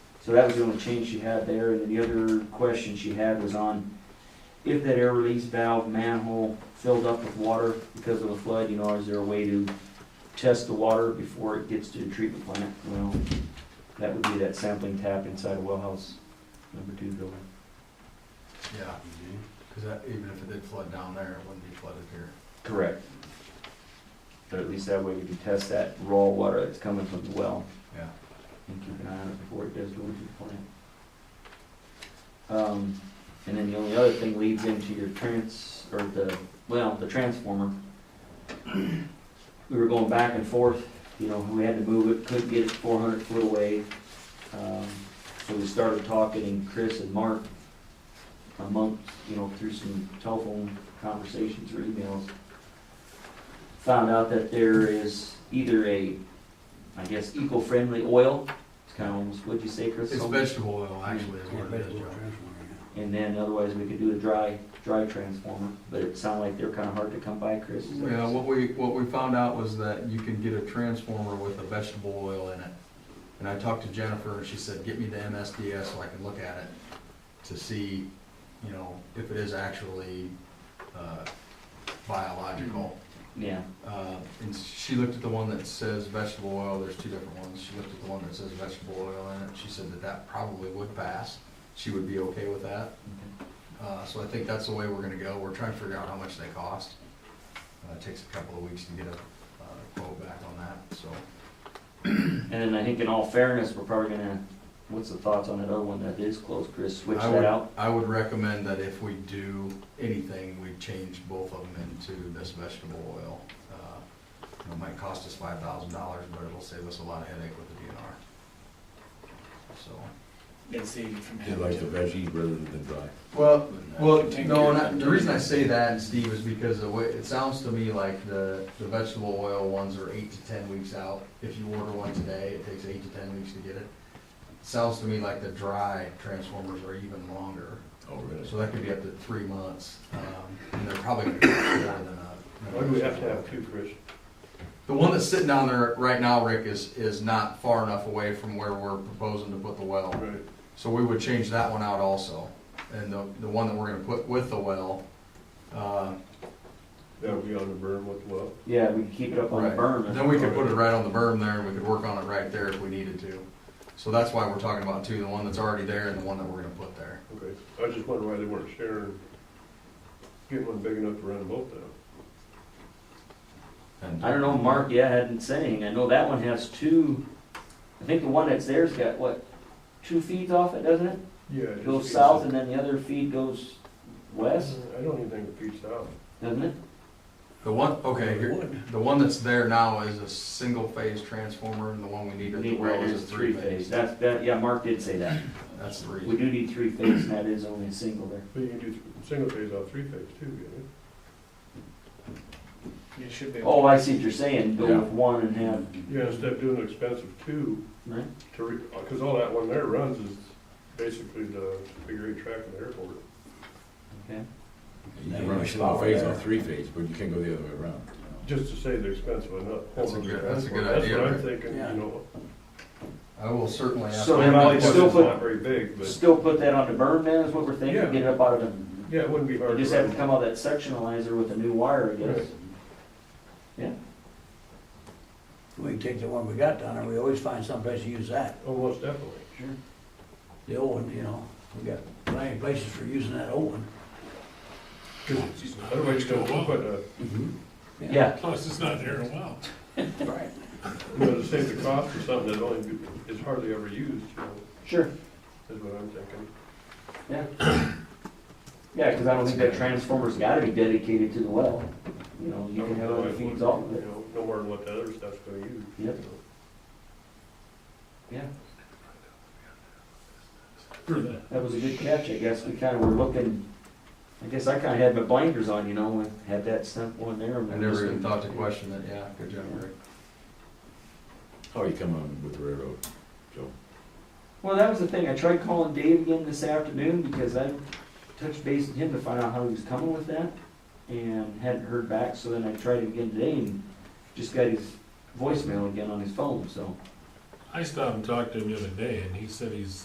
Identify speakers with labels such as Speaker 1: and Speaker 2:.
Speaker 1: So that was the only change she had there, and then the other question she had was on if that air release valve manhole filled up with water because of a flood, you know, is there a way to test the water before it gets to the treatment plant? Well, that would be that sampling tap inside of wellhouse number two building.
Speaker 2: Yeah, because that, even if it did flood down there, it wouldn't be flooded here.
Speaker 1: Correct. But at least that way we can test that raw water that's coming from the well
Speaker 2: Yeah.
Speaker 1: and keep an eye on it before it does go into the plant. Um, and then the only other thing leads into your trans, or the, well, the transformer. We were going back and forth, you know, we had to move it, couldn't get it four hundred foot away. Um, so we started talking and Chris and Mark amongst, you know, through some telephone conversations or emails. Found out that there is either a, I guess, eco-friendly oil, it's kind of almost, what'd you say, Chris?
Speaker 2: It's
Speaker 1: Almost-
Speaker 2: vegetable oil, actually, is what it is, Joe.
Speaker 1: and then otherwise we could do a dry, dry transformer, but it sounded like they're kinda hard to come by, Chris. is that-
Speaker 2: Yeah, what we, what we found out was that you can get a transformer with a vegetable oil in it. And I talked to Jennifer, and she said, get me the MSDS so I can look at it to see, you know, if it is actually, uh, biological.
Speaker 1: Yeah,
Speaker 2: Uh, and she looked at the one that says vegetable oil, there's two different ones, she looked at the one that says vegetable oil in it, she said that that probably would pass. She would be okay with that. Uh, so I think that's the way we're gonna go, we're trying to figure out how much they cost. Uh, it takes a couple of weeks to get a, uh, quote back on that, so.
Speaker 1: and then I think in all fairness, we're probably gonna, what's the thoughts on that other one that is closed, Chris, switch
Speaker 2: I would-
Speaker 1: that out?
Speaker 2: I would recommend that if we do anything, we change both of them into this vegetable oil. Uh, you know, It might cost us five thousand dollars, but it'll save us a lot of headache with the DNR. So.
Speaker 3: They saved it from
Speaker 4: They
Speaker 3: having
Speaker 4: like the
Speaker 3: to.
Speaker 4: veggie rather than dry.
Speaker 2: Well, well,
Speaker 3: Take
Speaker 2: no,
Speaker 3: care
Speaker 2: and
Speaker 3: of
Speaker 2: I-
Speaker 3: it.
Speaker 2: the reason I say that, Steve, is because the way, it sounds to me like the, the vegetable oil ones are eight to ten weeks out. If you order one today, it takes eight to ten weeks to get it. Sounds to me like the dry transformers are even longer,
Speaker 4: Oh, really?
Speaker 2: so that could be up to three months. Um, And they're probably gonna cost more than a.
Speaker 5: Why do we have to have two, Chris?
Speaker 2: The one that's sitting down there right now, Rick, is, is not far enough away from where we're proposing to put the well.
Speaker 5: Right.
Speaker 2: So we would change that one out also. And the, the one that we're gonna put with the well, uh,
Speaker 5: That would be on the berm with the well.
Speaker 1: Yeah, we can keep it up on the
Speaker 2: right,
Speaker 1: berm.
Speaker 2: then we could put it right on the berm there and we could work on it right there if we needed to. So that's why we're talking about two, the one that's already there and the one that we're gonna put there.
Speaker 5: Okay. I was just wondering why they weren't sharing, getting one big enough to run them both down.
Speaker 2: And-
Speaker 1: I don't know, Mark, yeah, hadn't saying, I know that one has two, I think the one that's there's got, what, two feeds off it, doesn't it?
Speaker 5: Yeah.
Speaker 1: It Goes south and then the other feed goes west,
Speaker 5: I don't even think it feeds south.
Speaker 1: doesn't it?
Speaker 2: The one, okay, here, the one that's there now is a single phase transformer and the one we need at the well is a three phase.
Speaker 1: That's, that, yeah, Mark did say that,
Speaker 2: That's the reason.
Speaker 1: we do need three phase, and that is only a single there.
Speaker 5: But you can do th- single phase off three phase too, you
Speaker 3: It should be.
Speaker 1: Oh, I see what you're saying, go
Speaker 2: Yeah.
Speaker 1: with one and have,
Speaker 5: know? Yeah, instead of doing an expensive two
Speaker 1: right?
Speaker 5: to re, uh, cause all that one there runs is basically the figure eight track of the airport.
Speaker 1: Okay.
Speaker 4: You can run a single phase or three phase, but you can't go the other way around.
Speaker 5: Just to say they're expensive enough.
Speaker 2: That's a good- that's a good idea,
Speaker 5: That's what
Speaker 2: right?
Speaker 5: I'm thinking,
Speaker 3: Yeah.
Speaker 5: you know.
Speaker 2: I will certainly ask.
Speaker 1: So then
Speaker 2: them
Speaker 1: I'll
Speaker 2: that
Speaker 1: still
Speaker 2: question.
Speaker 5: It's
Speaker 1: put-
Speaker 5: not very big, but
Speaker 1: Still put that on the burn then, is what we're thinking,
Speaker 5: Yeah.
Speaker 1: get it up out of the,
Speaker 5: yeah, it wouldn't be hard
Speaker 1: you
Speaker 5: to
Speaker 1: just have to
Speaker 5: run.
Speaker 1: come out that sectionalizer with a new wire, I guess.
Speaker 5: Right.
Speaker 1: Yeah,
Speaker 6: We can take the one we got down there, we always find someplace to use that.
Speaker 5: Almost definitely.
Speaker 1: sure.
Speaker 6: The old one, you know, we got plenty of places for using that old one.
Speaker 5: Cause otherwise you don't put a
Speaker 1: Mm-hmm. Yeah,
Speaker 3: Plus, it's not there in a while.
Speaker 6: Right.
Speaker 5: You know, to save the cost for something that only is hardly ever used, you know,
Speaker 1: sure,
Speaker 5: is what I'm thinking.
Speaker 1: yeah. Yeah, cause I don't think that transformer's gotta be dedicated to the well, you know, you can have other feeds off of
Speaker 5: You
Speaker 1: it,
Speaker 5: know, no more than what the other stuff's gonna use. you
Speaker 1: Yep.
Speaker 5: know.
Speaker 1: yeah.
Speaker 3: For the,
Speaker 1: That was a good catch, I guess, we kinda were looking, I guess I kinda had my blinders on, you know, and had that sent one there. and
Speaker 2: I
Speaker 1: we're just
Speaker 2: never even
Speaker 1: gonna-
Speaker 2: thought to question that, yeah, good job, Rick.
Speaker 4: How are you coming with the railroad, Joe?
Speaker 1: Well, that was the thing. I tried calling Dave again this afternoon because I touched base with him to find out how he was coming with that and hadn't heard back. So then I tried him again today and just got his voicemail again on his phone, so.
Speaker 3: I stopped and talked to him the other day, and he said he's